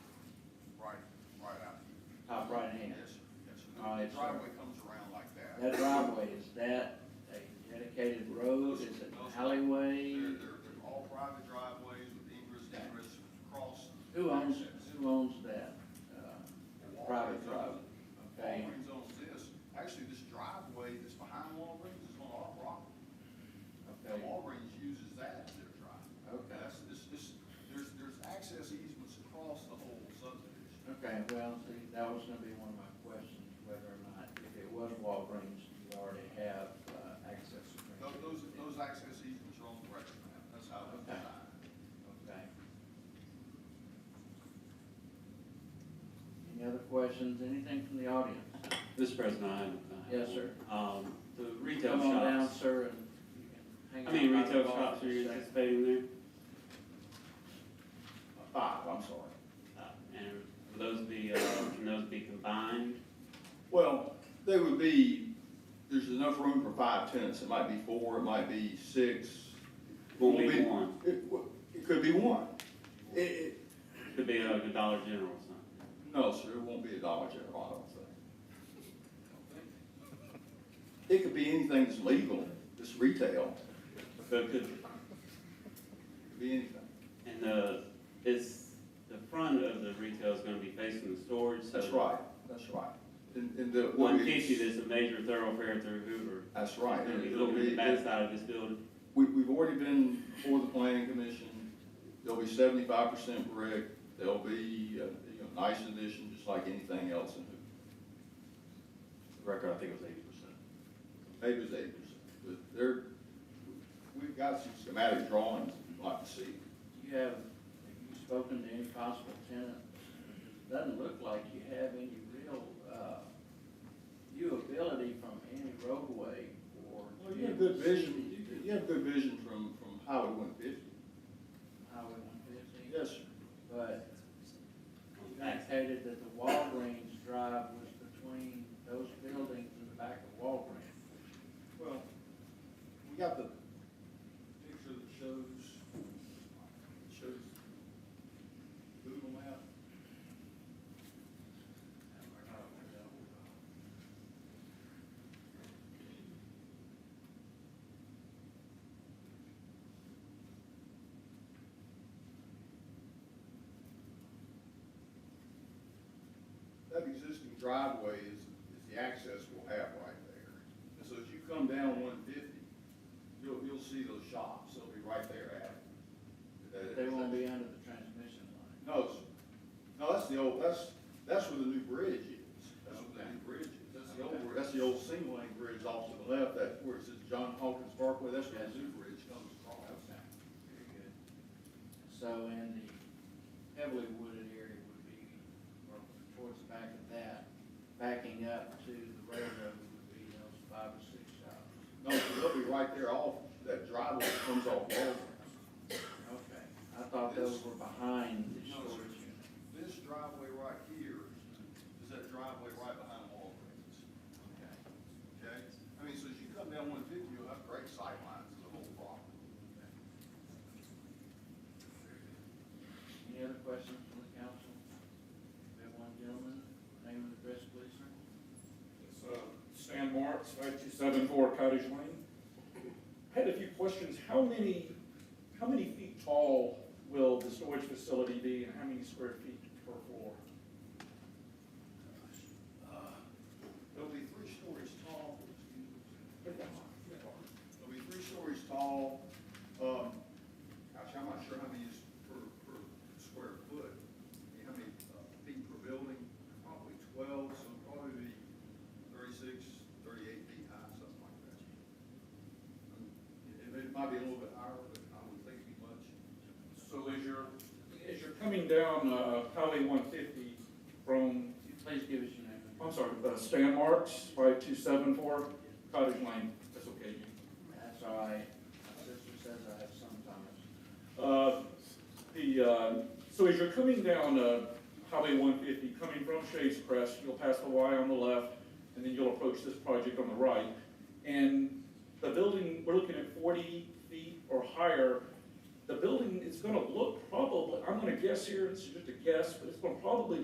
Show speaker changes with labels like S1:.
S1: driveway,
S2: The
S1: sir.
S2: driveway comes around like that.
S1: That driveway, is that a dedicated road, is it an alleyway?
S2: They're, they're, they're all private driveways with ingress, egress, cross.
S1: Who owns,
S2: access.
S1: who owns that, uh, private
S2: Walgreens
S1: drive?
S2: owns-
S1: Okay,
S2: Walgreens owns this, actually, this driveway that's behind Walgreens is on our property. And
S1: okay,
S2: Walgreens uses that as their driveway.
S1: okay,
S2: That's, this, this, there's, there's access easements across the whole subdivision.
S1: okay, well, see, that was gonna be one of my questions, whether or not, if it was Walgreens, you already have, uh, access
S2: Those,
S1: agreement.
S2: those, those access easements are on the record map, that's how it was designed.
S1: Okay. Any other questions, anything from the audience?
S3: Mr. President, I have a
S1: Yes, sir.
S3: Um, the retail
S1: Come on down,
S3: shops,
S1: sir, and you can hang
S3: how
S1: out.
S3: many
S1: by the
S3: retail
S1: bar
S3: shops
S1: for
S3: are
S1: a
S3: you
S1: second.
S3: anticipating there?
S1: Five, I'm sorry.
S3: Uh, And will those be, uh, can those be combined?
S4: Well, there would be, there's enough room for five tenants, it might be four, it might be six.
S3: Won't
S4: Won't
S3: be
S4: be-
S3: one,
S4: It, w- it could be one. It, it,
S3: could be like a Dollar General or something.
S4: no, sir, it won't be a Dollar General, I don't think. It could be anything that's legal, that's retail,
S3: So it could,
S4: it could be anything.
S3: and the, it's, the front of the retail is gonna be facing the storage, so.
S4: That's right, that's right. And, and the.
S3: One fifty, that's a major thoroughfare through Hoover.
S4: That's right.
S3: Gonna be
S4: It'll
S3: looking at the
S4: be-
S3: back side of this building.
S4: We, we've already been before the planning commission, they'll be seventy-five percent brick, they'll be, uh, you know, nice addition, just like anything else in Hoover. The record, I think it was eighty percent. Maybe it was eighty percent, but there, we've got some schematic drawings you'd like to see.
S1: You have, have you spoken to any possible tenant? Doesn't look like you have any real, uh, viewability from any roadway or.
S4: Well, you have good vision, you, you have good vision from, from Highway one fifty.
S1: Highway one fifty,
S4: Yes, sir.
S1: but you indicated that the Walgreens drive was between those buildings and the back of Walgreens.
S2: Well, we got the picture that shows, shows Google map.
S4: That existing driveway is, is the access we'll have right there. And so as you come down one fifty, you'll, you'll see those shops, they'll be right there at it.
S1: They won't be under the transmission line.
S4: No, s- no, that's the old, that's, that's where the new bridge is, that's where the new bridge is, that's the old, that's the old single lane bridge off to the left, that, where it says John Hawkins Parkway, that's where the new bridge comes across.
S1: Very good. So in the heavily wooded area would be, or towards the back of that, backing up to the railroad would be those five or six shops.
S4: No, so they'll be right there off, that driveway that comes off Walnut.
S1: Okay. I thought those were behind the storage unit.
S2: This driveway right here is that driveway right behind Walgreens,
S1: Okay.
S2: okay? I mean, so as you come down one fifty, you'll have great sightlines of the whole property.
S1: Any other questions from the council? We have one gentleman, name and address, please, sir.
S5: It's uh, Stan Martz, five two seven four Cottage Lane. I Had a few questions. How many, how many feet tall will the storage facility be and how many square feet per floor?
S2: It'll be three stories tall. It'll be three stories tall, um, gosh, I'm not sure how many is per, per square foot, I mean, how many uh, feet per building, probably twelve, so it'll probably be thirty-six, thirty-eight feet high, something like that. Um, It, it might be a little bit higher, but I wouldn't think it'd be much.
S5: So as you're, as you're coming down uh, Highway one fifty from,
S1: Could you Please give us your name. and
S5: I'm sorry, uh, Stan Martz, five two seven four Cottage Lane. That's okay. you-
S1: That's all right. My sister says I have sometimes.
S5: Uh, The, uh, so as you're coming down uh, Highway 150, coming from Shades Crest, you'll pass the Y on the left, and then you'll approach this project on the right. And the building, we're looking at 40 feet or higher. The building is going to look probably, I'm going to guess here, it's just a guess, but it's going to probably